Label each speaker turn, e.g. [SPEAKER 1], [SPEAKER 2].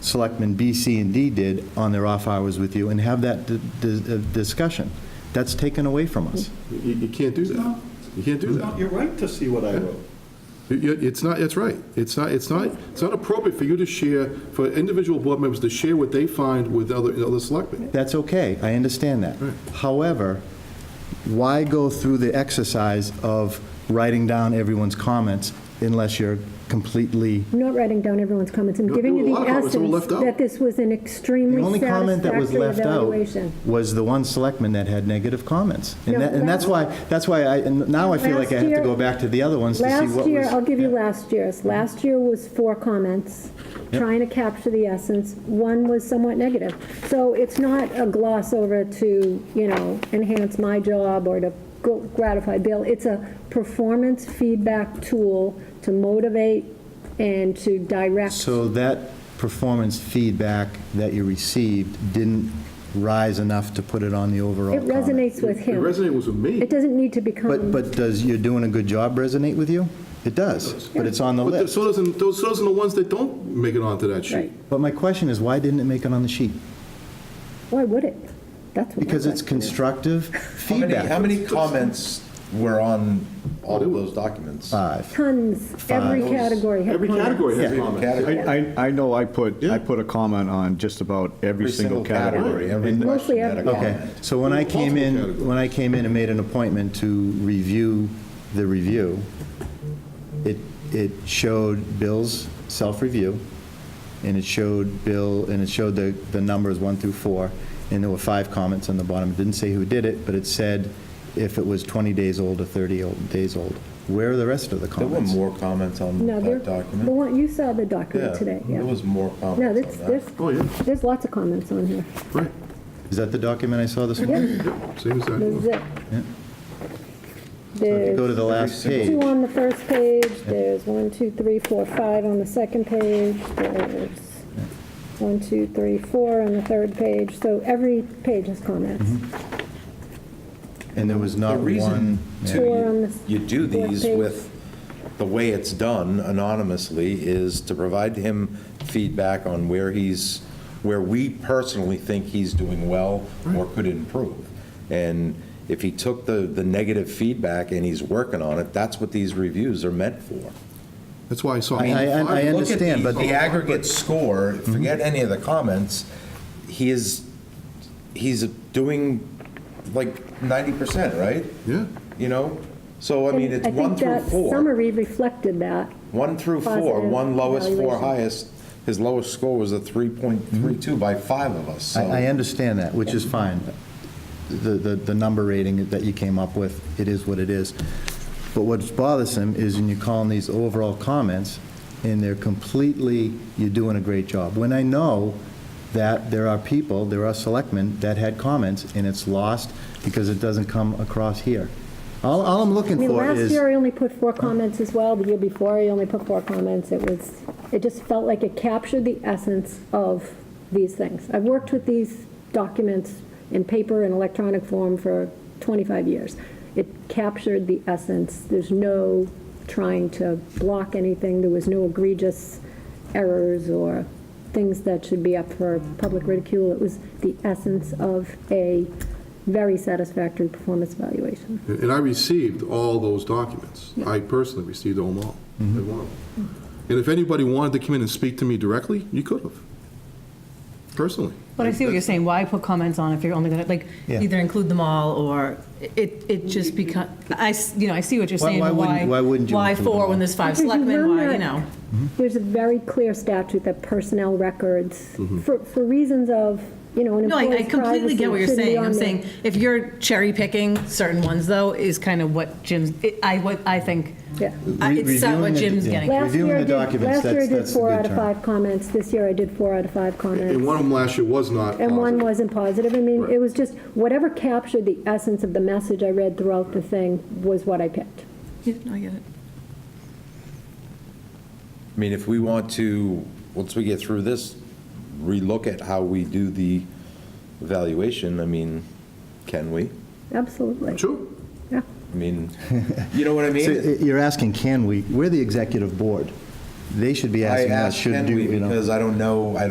[SPEAKER 1] Selectmen B, C, and D did on their off hours with you and have that di- di- uh, discussion. That's taken away from us.
[SPEAKER 2] You, you can't do that. You can't do that.
[SPEAKER 3] You're right to see what I wrote.
[SPEAKER 2] You- you- It's not, that's right. It's not, it's not, it's not appropriate for you to share, for individual board members to share what they find with other, other selectmen.
[SPEAKER 1] That's okay, I understand that. However, why go through the exercise of writing down everyone's comments unless you're completely,
[SPEAKER 4] I'm not writing down everyone's comments, I'm
[SPEAKER 2] No,
[SPEAKER 4] giving
[SPEAKER 2] there
[SPEAKER 4] you
[SPEAKER 2] were a lot
[SPEAKER 4] the
[SPEAKER 2] of comments that were
[SPEAKER 4] essence
[SPEAKER 2] left out.
[SPEAKER 4] that this was an
[SPEAKER 1] the
[SPEAKER 4] extremely
[SPEAKER 1] only comment that was
[SPEAKER 4] satisfactory
[SPEAKER 1] left out
[SPEAKER 4] evaluation.
[SPEAKER 1] was the one selectman that had negative comments.
[SPEAKER 4] No,
[SPEAKER 1] And that, and that's why,
[SPEAKER 4] last-
[SPEAKER 1] that's why I, and now I feel like I have to
[SPEAKER 4] Last
[SPEAKER 1] go
[SPEAKER 4] year-
[SPEAKER 1] back to the other ones to see what was.
[SPEAKER 4] Last year, I'll give you
[SPEAKER 1] Yeah.
[SPEAKER 4] last year's. Last year was four comments, trying to capture the essence. One was somewhat negative. So it's not a gloss over to, you know, enhance my job or to gr- gratify Bill. It's a performance feedback tool to motivate and to direct.
[SPEAKER 1] So that performance feedback that you received didn't rise enough to put it on the overall
[SPEAKER 4] It
[SPEAKER 1] comment?
[SPEAKER 4] resonates with
[SPEAKER 2] It
[SPEAKER 4] him.
[SPEAKER 2] resonated with me.
[SPEAKER 4] It doesn't need to become.
[SPEAKER 1] But, but does "you're doing a good job" resonate with you? It does, but it's on the
[SPEAKER 2] But
[SPEAKER 1] list.
[SPEAKER 2] so doesn't, those, those are the ones that don't make it onto that sheet.
[SPEAKER 4] Right.
[SPEAKER 1] But my question is, why didn't it make it on the sheet?
[SPEAKER 4] Why would it? That's what. my
[SPEAKER 1] Because it's
[SPEAKER 4] question is.
[SPEAKER 1] constructive
[SPEAKER 3] How many, how
[SPEAKER 1] feedback.
[SPEAKER 3] many comments were on all of those documents?
[SPEAKER 1] Five.
[SPEAKER 4] Tons, every category. had
[SPEAKER 2] Every
[SPEAKER 4] comments.
[SPEAKER 2] category has
[SPEAKER 5] Yeah.
[SPEAKER 2] comments.
[SPEAKER 3] Category.
[SPEAKER 5] I, I I know I put, I put a comment on just about every single category.
[SPEAKER 3] Every
[SPEAKER 5] And
[SPEAKER 3] question
[SPEAKER 4] Mostly
[SPEAKER 3] had a
[SPEAKER 4] every-
[SPEAKER 1] Okay,
[SPEAKER 3] comment.
[SPEAKER 1] so when I came in, when I came in and made an appointment to review the review, it, it showed Bill's self-review, and it showed Bill, and it showed the, the numbers one through four, and there were five comments on the bottom. It didn't say who did it, but it said if it was 20 days old or 30 old- days old. Where are the rest of the
[SPEAKER 3] There were
[SPEAKER 1] comments?
[SPEAKER 3] more comments on
[SPEAKER 4] No, there,
[SPEAKER 3] that
[SPEAKER 4] the
[SPEAKER 3] document.
[SPEAKER 4] one, you saw the
[SPEAKER 3] Yeah,
[SPEAKER 4] document today, yeah.
[SPEAKER 3] there was more
[SPEAKER 4] No,
[SPEAKER 3] comments
[SPEAKER 4] there's,
[SPEAKER 3] on that.
[SPEAKER 4] there's,
[SPEAKER 2] Oh, yeah,
[SPEAKER 4] there's lots of comments on here.
[SPEAKER 2] right.
[SPEAKER 1] Is that the document I saw this morning?
[SPEAKER 4] Yep,
[SPEAKER 2] Same as
[SPEAKER 4] there's
[SPEAKER 2] that.
[SPEAKER 4] it.
[SPEAKER 1] Yeah. Go to
[SPEAKER 4] There's
[SPEAKER 1] the last page.
[SPEAKER 4] two on the first page, there's one, two, three, four, five on the second page, there's one, two, three, four on the third page, so every page has
[SPEAKER 3] Mm-hmm.
[SPEAKER 4] comments.
[SPEAKER 1] And there was
[SPEAKER 3] The
[SPEAKER 1] not one.
[SPEAKER 3] reason,
[SPEAKER 1] yeah.
[SPEAKER 3] too,
[SPEAKER 4] Or on
[SPEAKER 3] you-
[SPEAKER 4] the
[SPEAKER 3] you do
[SPEAKER 4] fourth
[SPEAKER 3] these
[SPEAKER 4] page.
[SPEAKER 3] with, the way it's done anonymously is to provide him feedback on where he's, where we personally think he's doing well or could improve. And if he took the, the negative feedback and he's working on it, that's what these reviews are meant for.
[SPEAKER 2] That's why I saw.
[SPEAKER 1] I- I- I
[SPEAKER 2] five.
[SPEAKER 1] understand.
[SPEAKER 3] Look at the-
[SPEAKER 1] but-
[SPEAKER 3] The Mm-hmm. aggregate score, forget any of the comments, he is, he's doing like 90%, right?
[SPEAKER 2] Yeah.
[SPEAKER 3] You know? So, I mean,
[SPEAKER 4] And
[SPEAKER 3] it's one
[SPEAKER 4] I
[SPEAKER 3] through
[SPEAKER 4] think that
[SPEAKER 3] four.
[SPEAKER 4] summary reflected that.
[SPEAKER 3] One through four,
[SPEAKER 4] positive
[SPEAKER 3] one lowest, four
[SPEAKER 4] evaluation.
[SPEAKER 3] highest. His lowest score was a 3.32 by five of us, so.
[SPEAKER 1] I, I understand that, which is fine. The, the, the number rating that you came up with, it is what it is. But what's bothersome is when you call in these overall comments, and they're completely, you're doing a great job. When I know that there are people, there are selectmen that had comments, and it's lost because it doesn't come across here. All, all I'm
[SPEAKER 4] I
[SPEAKER 1] looking
[SPEAKER 4] mean,
[SPEAKER 1] for
[SPEAKER 4] last
[SPEAKER 1] is.
[SPEAKER 4] year I only put four comments as well, the year before I only put four comments. It was, it just felt like it captured the essence of these things. I've worked with these documents in paper and electronic form for 25 years. It captured the essence. There's no trying to block anything, there was no egregious errors or things that should be up for public ridicule. It was the essence of a very satisfactory performance evaluation.
[SPEAKER 2] And I received all those documents. I personally received them all,
[SPEAKER 1] Mm-hmm.
[SPEAKER 2] every one of them. And if anybody wanted to come in and speak to me directly, you could have, personally.
[SPEAKER 6] But I see what you're saying, why put comments on if you're only going to, like,
[SPEAKER 1] Yeah.
[SPEAKER 6] either include them all, or it, it just become, I, s- you know, I see what you're
[SPEAKER 1] Why-
[SPEAKER 6] saying,
[SPEAKER 1] why
[SPEAKER 6] but
[SPEAKER 1] wouldn't-
[SPEAKER 6] why?
[SPEAKER 1] why wouldn't you
[SPEAKER 6] Why
[SPEAKER 1] include them
[SPEAKER 6] four
[SPEAKER 1] all?
[SPEAKER 6] when there's five
[SPEAKER 4] Because you
[SPEAKER 6] selectmen,
[SPEAKER 4] run
[SPEAKER 6] why, you
[SPEAKER 4] that-
[SPEAKER 6] know?
[SPEAKER 1] Mm-hmm.
[SPEAKER 4] There's a very clear statute that personnel records,
[SPEAKER 1] Mm-hmm.
[SPEAKER 4] for, for reasons of, you know, an
[SPEAKER 6] No, I- I
[SPEAKER 4] employee's
[SPEAKER 6] completely
[SPEAKER 4] privacy
[SPEAKER 6] get what you're
[SPEAKER 4] shouldn't be
[SPEAKER 6] saying,
[SPEAKER 4] on
[SPEAKER 6] I'm
[SPEAKER 4] there.
[SPEAKER 6] saying, if you're cherry picking certain ones, though, is kind of what Jim's, it- I, what I think,
[SPEAKER 4] Yeah.
[SPEAKER 6] I- it's not
[SPEAKER 1] Reviewing
[SPEAKER 6] what
[SPEAKER 1] it,
[SPEAKER 6] Jim's
[SPEAKER 1] yeah.
[SPEAKER 6] getting.
[SPEAKER 4] Last
[SPEAKER 1] Reviewing
[SPEAKER 4] year I
[SPEAKER 1] the
[SPEAKER 4] did-
[SPEAKER 1] documents, that's-
[SPEAKER 4] Last year I did
[SPEAKER 1] that's the
[SPEAKER 4] four
[SPEAKER 1] good
[SPEAKER 4] out of
[SPEAKER 1] term.
[SPEAKER 4] five comments, this year I did four out of five comments.
[SPEAKER 2] And one of them last year was not.
[SPEAKER 4] And one
[SPEAKER 2] positive.
[SPEAKER 4] wasn't positive. I mean, it was just, whatever captured the essence of the message I read throughout the thing was what I picked.
[SPEAKER 6] Yeah, no, I get it.
[SPEAKER 3] I mean, if we want to, once we get through this, relook at how we do the evaluation, I mean, can we?
[SPEAKER 4] Absolutely.
[SPEAKER 2] Sure.
[SPEAKER 4] Yeah.
[SPEAKER 3] I mean, you know what I mean?
[SPEAKER 1] So You're asking, can we? We're the executive board. They should be
[SPEAKER 3] I
[SPEAKER 1] asking us,
[SPEAKER 3] asked
[SPEAKER 1] should do,
[SPEAKER 3] Henry
[SPEAKER 1] you know.
[SPEAKER 3] because I don't know, I